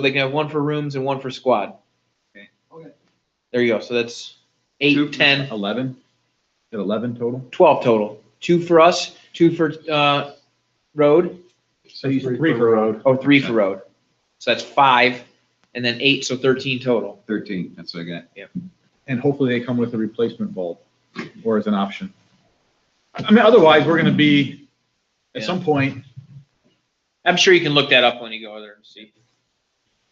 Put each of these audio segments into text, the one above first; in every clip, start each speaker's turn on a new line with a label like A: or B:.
A: they can have one for rooms and one for squad.
B: Okay.
C: Okay.
A: There you go, so that's eight,
B: Two.
A: ten,
D: Eleven? At eleven total?
A: twelve total, two for us, two for, uh, road,
D: So you three for road.
A: oh, three for road. So that's five, and then eight, so thirteen total.
B: Thirteen, that's what I got.
D: And hopefully they come with a replacement bulb or as an option. I mean, otherwise, we're gonna be, at some point,
A: I'm sure you can look that up when you go over there and see.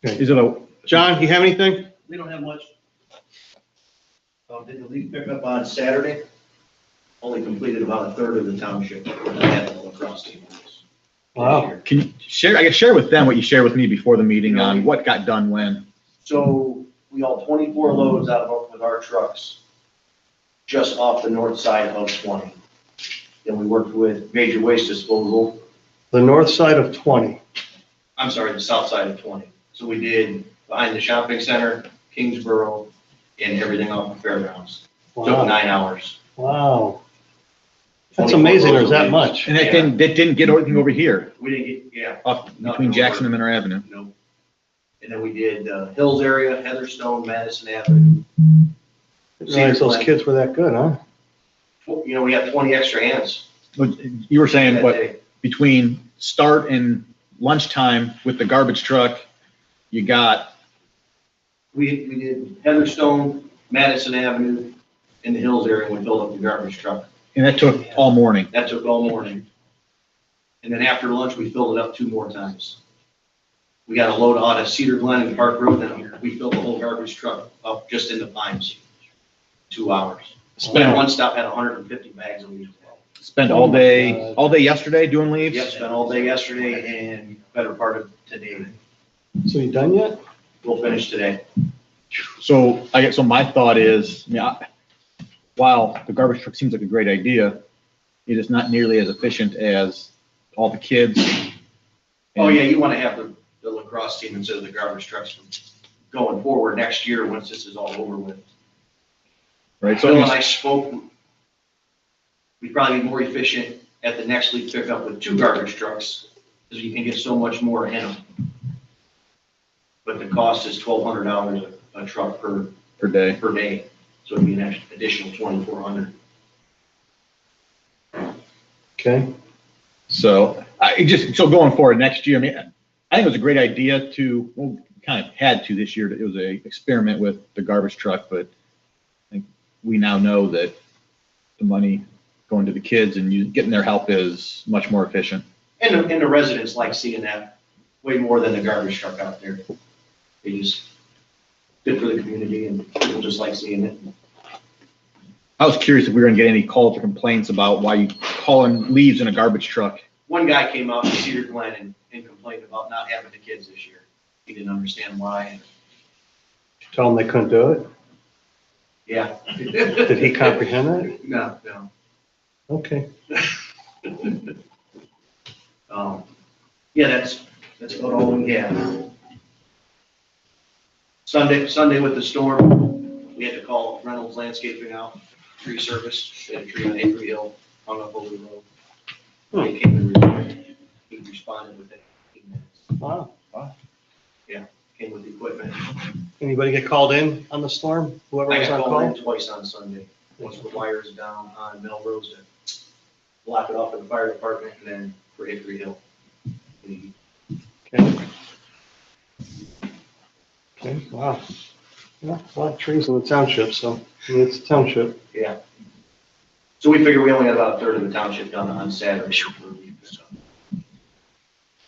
D: is it a,
E: John, you have anything?
C: We don't have much. Um, did the leaf pick up on Saturday? Only completed about a third of the township. and had a lacrosse team.
E: Wow.
D: can you share, I guess share with them what you shared with me before the meeting on what got done when.
C: So we hauled twenty-four loads out of, our- with our trucks just off the north side of twenty. Then we worked with major waste disposal,
E: The north side of 20.
C: I'm sorry, the south side of twenty. So we did behind the shopping center, Kingsborough, and everything off the fairgrounds. Took
E: Wow.
C: nine hours.
E: Wow. That's
C: 24
E: amazing,
C: loads
E: there's
C: of
E: that
C: leaves.
E: much.
D: And that didn't, that didn't get everything over here,
C: We didn't get, yeah,
D: up between Jackson and Minor Avenue.
C: Nope. And then we did uh, Hills area, Heatherstone, Madison Avenue.
E: Didn't realize those kids were that good, huh?
C: You know, we had twenty extra hands.
D: But You were saying,
C: that
D: what,
C: day.
D: between start and lunchtime with the garbage truck, you got,
C: We, we did Heatherstone, Madison Avenue, and the Hills area, and we filled up the garbage truck.
D: and that took all morning.
C: That took all morning. And then after lunch, we filled it up two more times. We got a load out of Cedar Glen and Park Road, and we filled the whole garbage truck up just in the pines. Two hours. Spent one stop, had hundred and fifty bags of leaves.
D: Spent
E: Oh
D: all
E: my
D: day,
E: God.
D: all day yesterday doing leaves?
C: Yep, spent all day yesterday and better part of today.
E: So you done yet?
C: We'll finish today.
D: So I guess, so my thought is, I mean, I- while the garbage truck seems like a great idea, it is not nearly as efficient as all the kids.
C: Oh, yeah, you want to have the, the lacrosse team instead of the garbage trucks from going forward next year, once this is all over with.
D: Right,
C: Bill
D: so
C: and I spoke, we'd probably be more efficient at the next league pickup with two garbage trucks, because you can get so much more in them. But the cost is twelve hundred dollars a truck per,
D: per day,
C: per day, so it'd be an extra- additional twenty-four hundred.
E: Okay.
D: so I it just, so going forward next year, I mean, I think it was a great idea to, well, kind of had to this year, it was a experiment with the garbage truck, but I think we now know that the money going to the kids and you, getting their help is much more efficient.
C: And, the- and the residents like seeing that way more than the garbage truck out there. It is good for the community and people just like seeing it.
D: I was curious if we were gonna get any calls or complaints about why you hauling leaves in a garbage truck.
C: One guy came out to Cedar Glen and, and complained about not having the kids this year. He didn't understand why, and,
E: Did you Tell them they couldn't do it?
C: yeah.
E: Did he comprehend that?
C: No, no.
E: Okay.
C: Um, yeah, that's, that's about all we have. Sunday, Sunday with the storm, we had to call Reynolds Landscaping out, tree service, they had a tree on Avery Hill, hung up over the road.
E: Hmm.
C: They came and re- he responded within fifteen minutes,
E: Wow.
C: came with the equipment.
E: Anybody get called in on the storm? Whoever
C: I
E: was
C: got
E: on
C: called
E: call?
C: in twice on Sunday, once the wires down on Melrose to block it off for the fire department, and then for Avery Hill. The
E: Okay. Okay, wow. Yeah, A lot of trees in the township, so I mean, it's a township.
C: Yeah. So we figure we only got about a third of the township done on Saturday.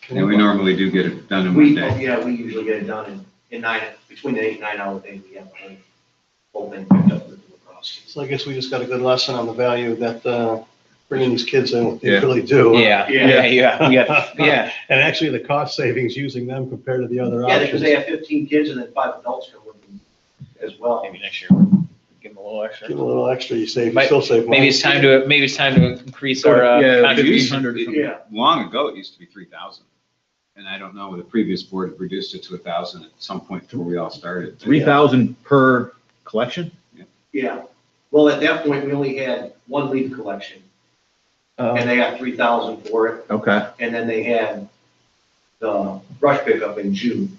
B: And we normally do get it done in one
C: We,
B: day.
C: yeah, we usually get it done in, in nine, between the eight and nine hour day, we have the whole- whole thing picked up with the lacrosse.
E: So I guess we just got a good lesson on the value that uh, bringing these kids in, what they
D: Yeah.
E: really do.
A: Yeah, yeah,
C: Yeah.
A: yeah, yeah, yeah.
E: And actually, the cost savings using them compared to the other
C: Yeah, because they
E: options.
C: have fifteen kids and then five adults come with them as well.
A: Maybe next year, give them a little extra.
E: Give a little extra, you save, you
A: Might-
E: still save money.
A: Maybe it's time to, maybe it's time to increase our uh,
D: Yeah,
A: contribution.
D: 1,500 or something.
C: Yeah.
B: Long ago, it used to be three thousand. And I don't know, the previous board reduced it to a thousand at some point before we all started.
D: Three thousand per collection?
C: Yeah, well, at that point, we only had one leaf collection
D: Oh,
C: and they got three thousand for it.
D: Okay,
C: And then they had the brush pickup in June